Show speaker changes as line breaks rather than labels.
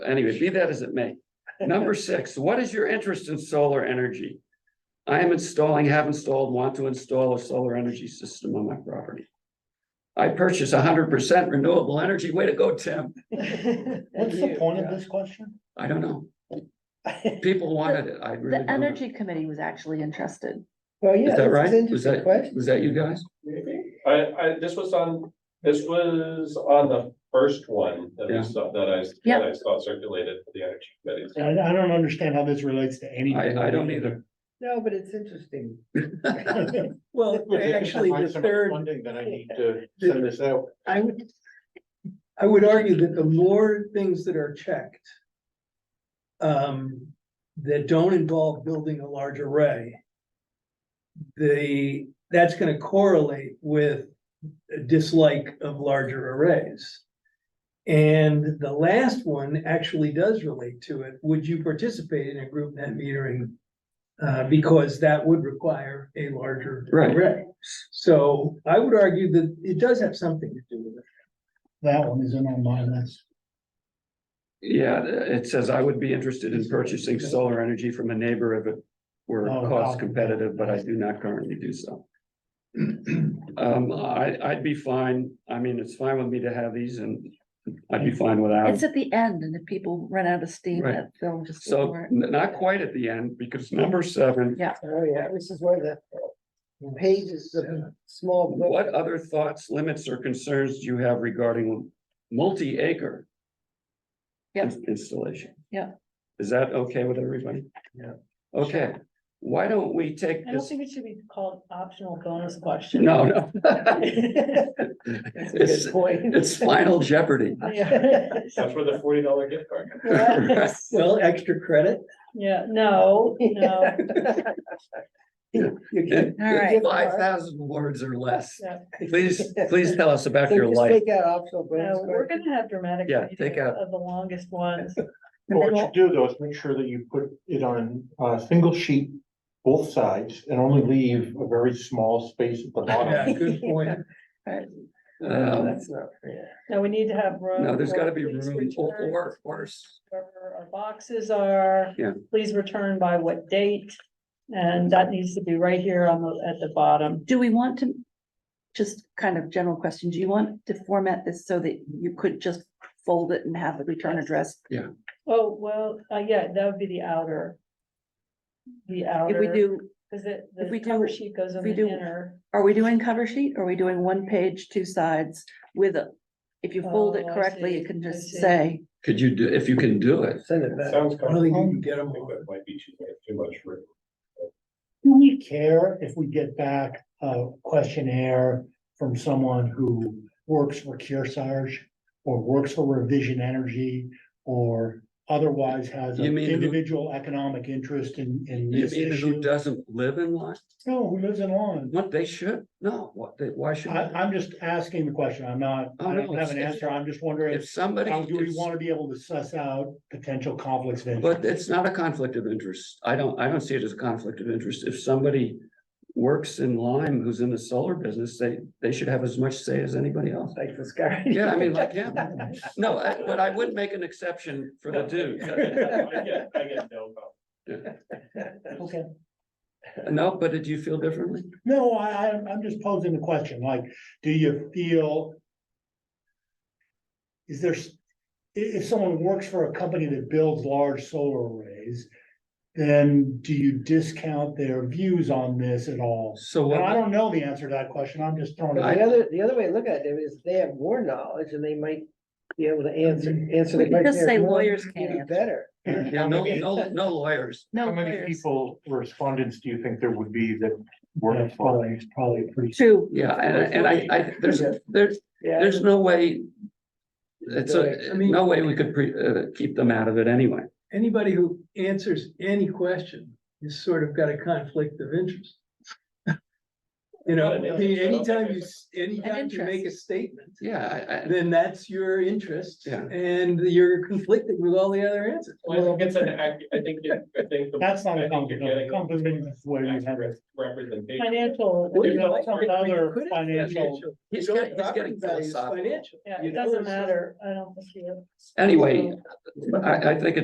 Anyway, be that as it may. Number six, what is your interest in solar energy? I am installing, have installed, want to install a solar energy system on my property. I purchase hundred percent renewable energy. Way to go, Tim.
What's the point of this question?
I don't know. People wanted it. I really
The
don't know.
energy committee was actually interested.
Well,
Is
yeah.
that
this
right?
an
Was
interesting
that,
question.
was that you guys?
I, I, this was on, this was on the first one that
Yeah.
we saw, that I, that
Yeah.
I saw circulated for the energy committees.
I, I don't understand how this relates to anything.
I, I don't either.
No, but it's interesting.
Well, actually, the third,
Funding that I
need
to
send
this out.
I would, I would argue that the more things that are checked. Um, that don't involve building a large array. The, that's gonna correlate with a dislike of larger arrays. And the last one actually does relate to it. Would you participate in a group net metering? Uh, because that would require a larger
Right.
array. So I would argue that it does have something to do with it.
That one isn't on my list.
Yeah, it says I would be interested in purchasing solar energy from a neighbor if it were
Oh,
cost
wow.
competitive, but I do not currently do so. Um, I, I'd be fine. I mean, it's fine with me to have these and I'd be fine without.
It's at the end and if people run out of steam,
Um, Right.
that they'll just.
So
ignore it.
n- not quite at the end because number seven,
Oh, yeah, this is where the pages of the small book.
what other thoughts, limits or concerns do you have regarding multi-acre?
Yeah.
ins- Installation?
Yeah.
Is that okay with everybody?
Yeah.
Okay, why don't we take
I don't
this?
think it should be called optional bonus question.
No, no. It's,
point.
it's final jeopardy.
Yeah,
That's where the forty dollar gift card. comes.
Right.
Well, extra credit.
Yeah, no, no,
You can-
It-
All right.
it's Five thousand words or less.
Yeah.
Please, please tell us about
So
your
just
life.
take that optional bonus
no, we're
question.
gonna have dramatic.
Yeah,
reading
take
of-
out-
Of the longest ones.
But What you do though is make sure that you put it on a single sheet, both sides, and only leave a very small space at the
Yeah,
bottom.
good point.
No,
Um,
that's not fair.
No, we need to have room.
No, there's
for
gotta be
please
room or,
return,
or, or s-
Where our boxes are.
Yeah.
Please return by what date, and that needs to be right here on the, at the bottom.
Do we want to, just kind of general question, do you want to format this so that you could just fold it and have the return address?
Oh, well, uh, yeah, that would be the outer. The outer.
If we do,
Cause it,
if we
the
do-
cover sheet goes on
if we
the
do-
inner.
are we doing cover sheet? Are we doing one page, two sides with a? If you fold it
Oh, I
correctly,
see,
you can
I
just
see.
say,
could you do, if you can do it,
Send it back.
Sounds
I don't think you
complicated.
can get
I
them
think
all.
that might be too, too much for.
Do we care if we get back a questionnaire from someone who works for Kearsarge? Or works for Revision Energy or otherwise has
You
an
mean who-
individual economic interest in, in
you
this
mean who
issue?
doesn't live in Lyme?
No, who lives in Lawrence?
What they should, no, what they, why should?
I, I'm just asking the question. I'm not,
Oh,
I
no,
don't have an
it's-
answer. I'm just wondering,
If somebody,
how do we
is-
want to be able to suss out potential conflicts of
but
interest?
it's not a conflict of interest. I don't, I don't see it as a conflict of interest. If somebody works in Lyme who's in the solar business, they, they should have as much say as anybody else.
Like this guy.
Yeah, I mean, like, yeah, no, I- but I would make an exception for the dude.
I get, I get no. comment.
Okay.
No, but did you feel differently?
No, I, I, I'm just posing the question, like, do you feel? Is there, s- i- if someone works for a company that builds large solar arrays, then do you discount their views on this at all?
So
Well, I
what,
don't know the answer to that question. I'm just throwing it. out
The other, the other way to look at it is they have more knowledge and they might be able to answer, answer. the
We could just
question
say
more,
lawyers
maybe
can't answer.
Better.
yeah, no, no, no lawyers.
no.
How many
lawyers.
people, respondents, do you think there would be that
Yeah,
were
it's Probably, it's probably pretty.
Two,
Yeah, and, and I, I, there's, there's,
Yeah.
there's no way. It's a,
I mean-
no way we could pre, uh, keep them out of it anyway.
Anybody who answers any question has sort of got a conflict of interest. You know,
But
I mean,
it's-
anytime you, s- anytime you make a
interest.
statement,
Yeah, I, I,
then that's your interest.
Yeah.
And you're conflicting with all the other answers.
Well, I think it's an, ac- I think, it- I think. the-
That's not
I
a
think you're
compliment,
getting
compliment is where you have it.
accurate Representation.
Financial,
Well,
you
you
know,
like
some
it, but you
other
couldn't
financial-
financial-
he's
Your
getting, he's
property
getting
value is
philosophical.
Financial.
yeah,
you
it
know,
doesn't
so-
matter, I don't think you.
Anyway, I, I think it's.